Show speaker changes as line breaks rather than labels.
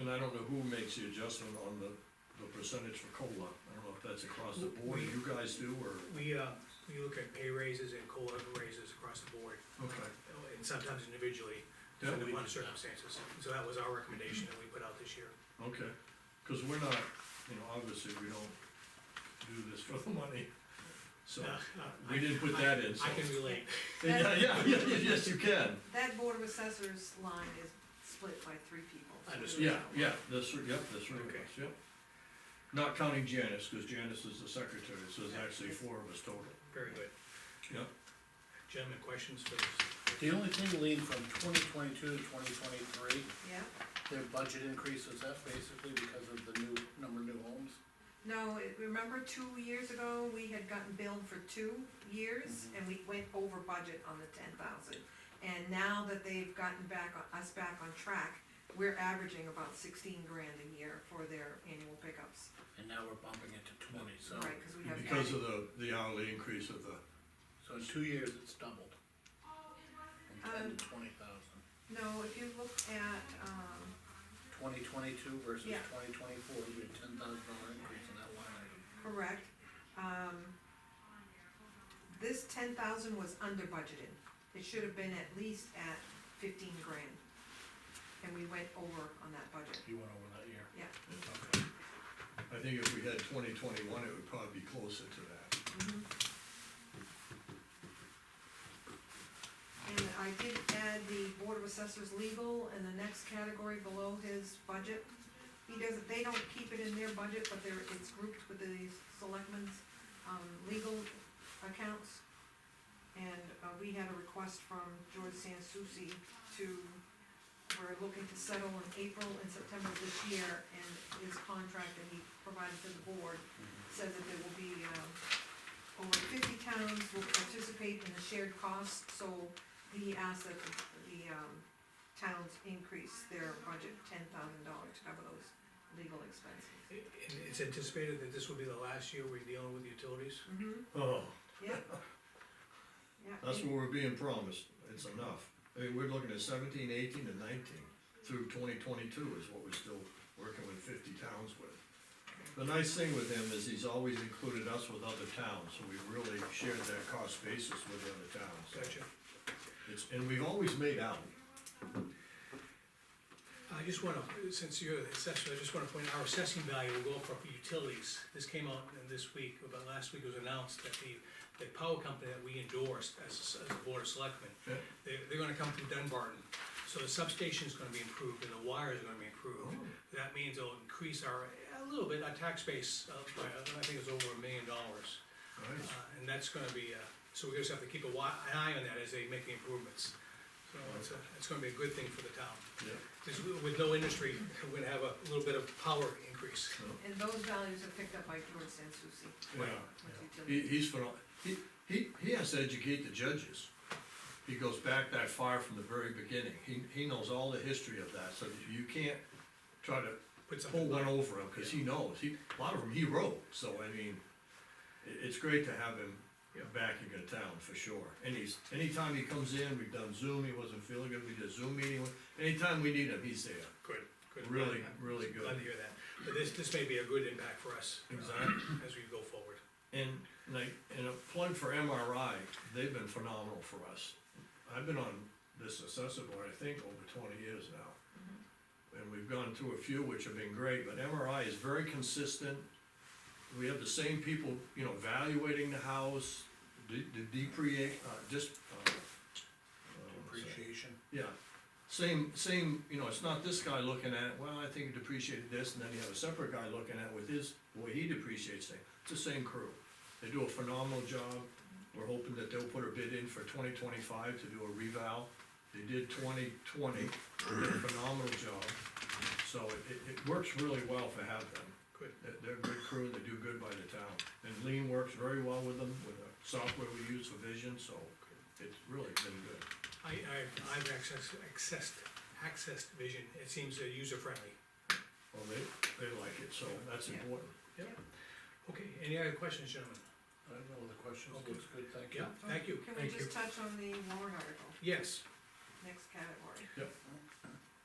And I don't know who makes the adjustment on the, the percentage for COLA, I don't know if that's across the board, or you guys do, or,
We, uh, we look at pay raises and COLA raises across the board,
okay.
and sometimes individually,
That
depending
we-
upon circumstances. So that was our recommendation that we put out this year.
Okay, cause we're not, you know, obviously, we don't do this for the money, so,
Uh, uh,
we didn't put that in, so.
I can relate.
Yeah, yeah, yeah, yes, you can,
That board of assessors line is split by three people. so
Understood.
yeah, yeah, that's, r- yep, that's right,
Okay.
yep. Not counting Janice, cause Janice is the secretary, so there's actually four of us total,
Very good.
yep.
Gentlemen, questions for this?
The only thing, Lean, from twenty twenty-two to twenty twenty-three,
Yeah,
their budget increase, was that basically because of the new, number of new homes?
no, it- remember two years ago, we had gotten billed for two years,
Mm-hmm.
and we went over budget on the ten thousand. And now that they've gotten back, on- us back on track, we're averaging about sixteen grand a year for their annual pickups.
And now we're bumping it to twenty, so,
Right, cause we have.
Because
added-
of the, the hourly increase of the,
so in two years, it's doubled. From ten
Um,
to twenty thousand.
No, if you look at, um,
Twenty twenty-two versus
Yeah.
twenty twenty-four, we had ten thousand dollar increase in that line item.
Correct. Um, this ten thousand was under budgeted. It should have been at least at fifteen grand. And we went over on that budget.
You went over that year.
Yeah.
Okay.
I think if we had twenty twenty-one, it would probably be closer to that.
And I did add the Board of Assessors legal in the next category below his budget. He doesn't, they don't keep it in their budget, but they're, it's grouped with the selectmen's, um, legal accounts. And, uh, we had a request from George Sansucci to, we're looking to settle in April and September of this year, and his contract that he provided to the board
Mm-hmm.
says that there will be, um, over fifty towns will participate in the shared costs, so he asked that the, the, um, towns increase their budget ten thousand dollars to cover those legal expenses.
And it's anticipated that this will be the last year we're dealing with utilities?
Mm-hmm,
Oh,
yeah. Yeah,
that's
and-
what we're being promised, it's enough. I mean, we're looking at seventeen, eighteen, and nineteen, through twenty twenty-two is what we're still working with fifty towns with. The nice thing with him is he's always included us with other towns, so we really shared that cost basis with the other towns.
Gotcha.
It's, and we've always made out,
I just wanna, since you're the assessor, I just wanna point out, our assessing value will go up for utilities. This came out uh, this week, about last week it was announced that the, the power company that we endorsed as, as a board of selectmen,
Yeah.
they're, they're gonna come through Dunbarton. So the substation's gonna be improved and the wires are gonna be improved. That means it'll increase our, a little bit, our tax base, uh, by, uh, I think it's over a million dollars.
right?
Uh, And that's gonna be, uh, so we just have to keep a wi- an eye on that as they make the improvements. So it's, a- it's gonna be a good thing for the town.
Yeah,
Because with no industry, we're gonna have a little bit of power increase.
And those values are picked up by George Sansucci.
yeah.
with
He,
utilities.
he's phenomenal, he, he, he has to educate the judges. He goes back that far from the very beginning, he, he knows all the history of that, so you can't try to
Put
pull
something,
one over him, cause he knows, he, a lot of them he wrote, so I mean, i- it's great to have him
Yeah.
back in the town, for sure, and he's, anytime he comes in, we've done Zoom, he wasn't feeling good, we did a Zoom meeting, anytime we need him, he's there.
good, good.
Really,
I'm
really good.
Glad to hear that. But this, this may be a good impact for us. uh,
Exactly.
As we go forward.
And like, and a plug for MRI, they've been phenomenal for us. I've been on this assessor board, I think, over twenty years now. And we've gone through a few which have been great, but MRI is very consistent. We have the same people, you know, evaluating the house, the, the depre, uh, just, uh. uh,
Depreciation.
yeah, same, same, you know, it's not this guy looking at, it. well, I think it depreciated this, and then you have a separate guy looking at it with his, the way he depreciates things, it's the same crew. They do a phenomenal job, we're hoping that they'll put a bid in for twenty twenty-five to do a reval. They did twenty twenty, phenomenal job, so it, it, it works really well to have them.
Good.
They're, they're a good crew, they do good by the town, and Lean works very well with them, with the software we use for vision, so it's really been good.
I, I, I've accessed, accessed, accessed vision. It seems uh, user-friendly.
Well, they, they like it, so that's
Yeah.
important.
Okay, any other questions, gentlemen?
I don't know, the questions,
Okay.
looks good, thank you.
Yeah, thank you.
Can we
Thank you.
just touch on the warrant article,
Yes,
next category?